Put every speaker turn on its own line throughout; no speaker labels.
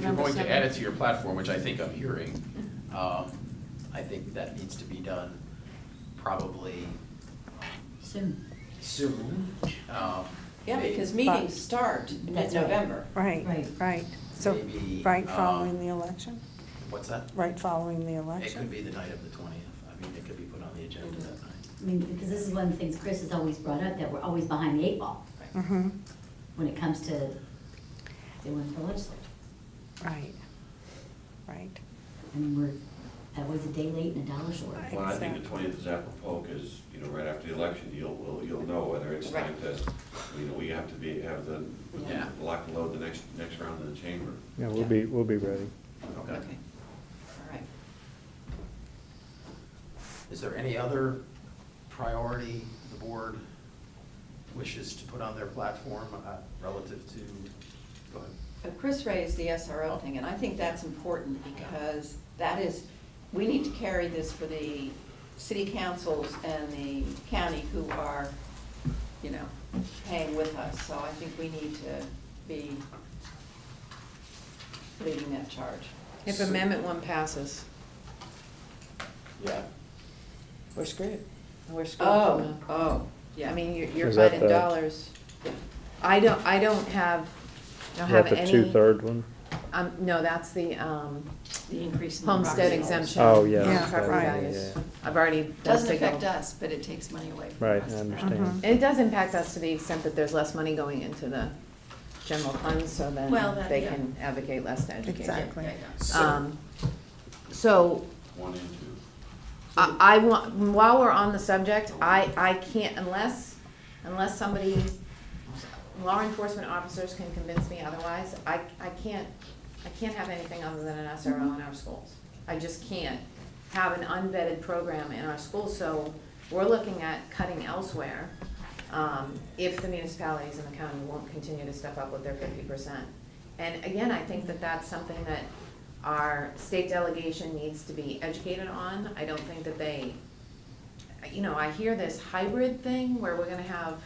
going to
seven.
add it to your platform, which I think I'm hearing, um, I think that needs to be done probably
Soon.
soon. Um,
Yeah,
may-
because meetings start in
That's right.
November.
Right.
Right, right. So,
Maybe,
right
um,
following the election,
What's that?
right following the
It could
election.
be the night of the twentieth, I mean, it could be put on the agenda that night.
I mean, because this is one of the things Chris has always brought up, that we're always behind the eight ball
hmm
when it comes to doing the legislature.
right, right.
I mean, we're, that was a day late and a dollar short.
Right.
Well, I think the twentieth is apropos, because, you know, right after the election, you'll, will- you'll know whether it's time to, you know, we have to be, have the,
Yeah.
lock and load the next, next round in the chamber.
Yeah, we'll be, we'll be ready.
Okay.
Okay.
Okay, all right.
Is there any other priority the board wishes to put on their platform uh, relative to, go ahead.
But Chris raised the SRO thing, and I think that's important because that is, we need to carry this for the city councils and the county who are, you know, paying with us. So I think we need to be leading that charge.
If Amendment One passes,
Yeah.
We're screwed.
we're screwed.
Oh, oh,
Yeah,
yeah.
I mean, you're, you're
Is that
fighting
the-
dollars. I don't, I don't have, I don't
Is
have
that
any.
the two-third one?
Um, no, that's the, um,
The increase in. the
homestead
property
exemption.
Oh, yeah,
on
Yeah,
property
right.
values.
yeah, yeah.
I've already done.
Doesn't
signal.
affect us, but it takes money away from
Right,
us.
I understand.
It does impact us to the extent that there's less money going into the general fund, so then
Well, that-
they
yeah.
can advocate less to educate.
Exactly.
Yeah, yeah.
Um, so,
One and two.
I, I want, while we're on the subject, I, I can't, unless, unless somebody, law enforcement officers can convince me otherwise, I, I can't, I can't have anything other than an SRO in our schools. I just can't have an unvetted program in our schools, so we're looking at cutting elsewhere, um, if the municipalities and the county won't continue to step up with their fifty percent. And again, I think that that's something that our state delegation needs to be educated on. I don't think that they, you know, I hear this hybrid thing where we're gonna have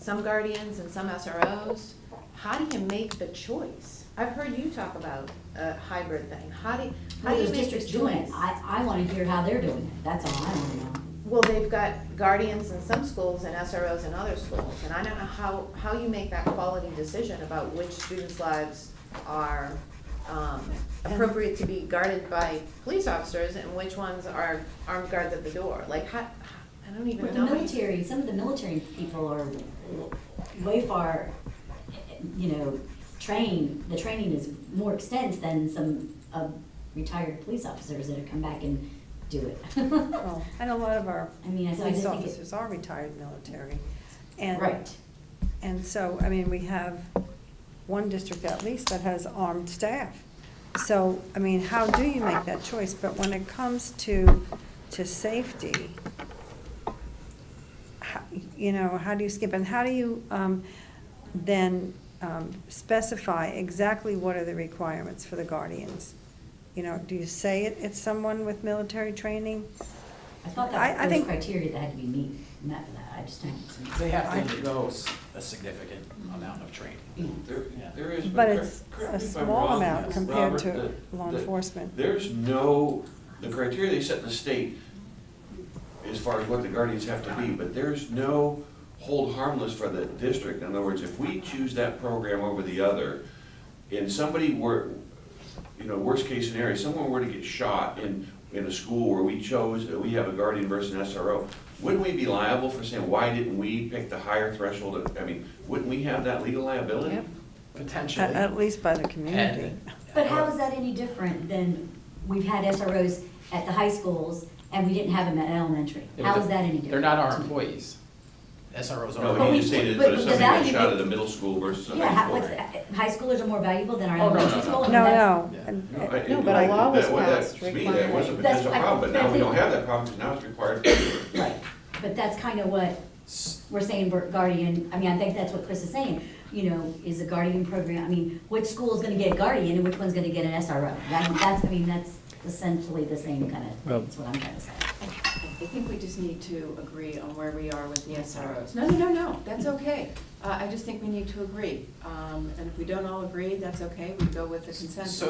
some guardians and some SROs. How do you make the choice? I've heard you talk about a hybrid thing. How do, how
Well,
do you
there's
make the
districts doing
choice?
it. I, I wanna hear how they're doing it. That's all I wanna know.
Well, they've got guardians in some schools and SROs in other schools, and I don't know how, how you make that quality decision about which students' lives are, um, appropriate to be guarded by police officers and which ones are armed guards at the door, like, how, I don't even
But
know.
the military, some of the military people are way far, you know, trained, the training is more extensive than some of retired police officers that have come back and do it.
Well, And a lot of our
I mean, I- I
police
just think it-
officers are retired military. And-
Right.
And so, I mean, we have one district at least that has armed staff. So, I mean, how do you make that choice? But when it comes to, to safety, how- you know, how do you skip, and how do you um, then um, specify exactly what are the requirements for the guardians? You know, do you say it, it's someone with military training?
I thought
I- I
that was
think-
criteria that had to be meet, met for that. I just don't.
They have to
I-
undergo s- a significant amount of training.
There,
Yeah.
there is.
But
correct-
it's
correct
a
me if I'm
small
wrong,
amount compared
Robert,
to
the-
law
the-
enforcement.
There's no, the criteria they set in the state, as far as what the guardians have to be, but there's no hold harmless for the district. In other words, if we choose that program over the other, and somebody were, you know, worst case scenario, someone were to get shot in, in a school where we chose, we have a guardian versus an SRO, wouldn't we be liable for saying, why didn't we pick the higher threshold? of- I mean, wouldn't we have that legal liability?
Yep.
At,
Potentially.
at least by the community.
And-
But how is that any different than we've had SROs at the high schools and we didn't have them at elementary?
Yeah, but
How is
the-
that any different?
They're not our employees. SROs are.
No,
our
you just
employees.
stated, but
but
if
the
somebody got
value
shot
may-
at a middle school versus a
Yeah,
high
how,
school.
what's, high schoolers are more valuable than our
Oh, no,
elementary
no,
school. I mean,
No,
that's-
no.
Yeah.
And-
No, I-
No, but a
I-
law was
that- well, that-
passed
To me, that was a
requiring-
potential
That's- I-
problem, but
I
now we
think-
don't have that problem, because now it's required.
Right, but that's kind of what we're saying, we're guardian, I mean, I think that's what Chris is saying, you know, is a guardian program, I mean, which school's gonna get a guardian and which one's gonna get an SRO? That- That's, I mean, that's essentially the same kind of,
Well-
that's what I'm trying to say.
I think we just need to agree on where we are with the SROs. No, no, no, no, that's okay. Uh, I just think we need to agree. Um, And if we don't all agree, that's okay, we go with the consensus.